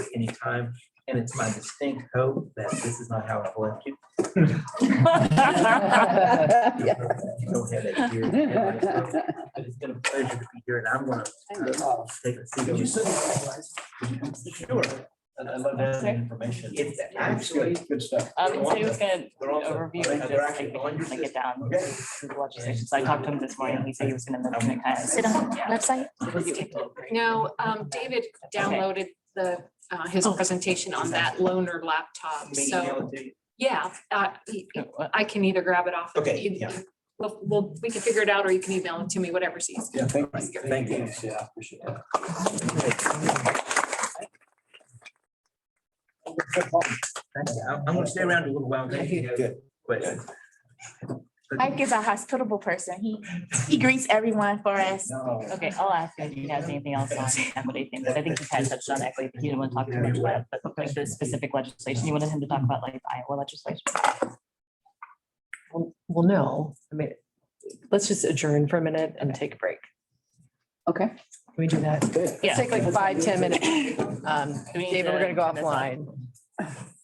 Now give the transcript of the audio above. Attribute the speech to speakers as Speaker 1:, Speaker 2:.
Speaker 1: any time, and it's my distinct hope that this is not how I've left you.
Speaker 2: Yeah.
Speaker 1: You don't have that here. But it's been a pleasure to be here, and I'm gonna uh, take a seat. over- Sure.
Speaker 3: And I love that information.
Speaker 1: It's
Speaker 3: It's good,
Speaker 1: actually,
Speaker 3: Good stuff.
Speaker 4: Um, so he was gonna
Speaker 1: They're also-
Speaker 4: overview
Speaker 1: they're
Speaker 4: and just
Speaker 1: actually
Speaker 4: like,
Speaker 1: on your
Speaker 4: like get down
Speaker 3: Okay.
Speaker 4: to the legislation. So I talked to him this morning. He said he was gonna mention it kind of.
Speaker 5: Sit on
Speaker 4: Yeah.
Speaker 5: website.
Speaker 6: No, um, David downloaded the, uh, his presentation on that loaner laptop,
Speaker 1: Maybe
Speaker 6: so,
Speaker 1: email it to you.
Speaker 6: yeah, uh, I can either grab it off.
Speaker 3: Okay,
Speaker 6: you-
Speaker 3: yeah.
Speaker 6: Well, well, we can figure it out, or you can email it to me, whatever's easiest.
Speaker 3: Yeah, thank
Speaker 6: you.
Speaker 3: Thank you. Yeah, I appreciate that.
Speaker 1: Thank you. I'm I'm gonna stay around a little while. in case you have
Speaker 3: Good.
Speaker 1: questions.
Speaker 5: Ike is a hospitable person. He, he greets everyone for us.
Speaker 3: No.
Speaker 4: Okay, I'll ask him if he has anything else on equity things. I think he kind of touched on equity, but he didn't want to talk too much about it, but like the specific legislation. You wanted him to talk about like the Iowa legislation.
Speaker 7: Well, well, no, I mean, let's just adjourn for a minute and take a break.
Speaker 2: Okay.
Speaker 7: Can we do that?
Speaker 3: Good.
Speaker 4: Yeah.
Speaker 7: Take like five, ten minutes. Um,
Speaker 4: Do we need
Speaker 7: David, we're
Speaker 4: to
Speaker 7: gonna go
Speaker 4: turn this off?
Speaker 7: offline.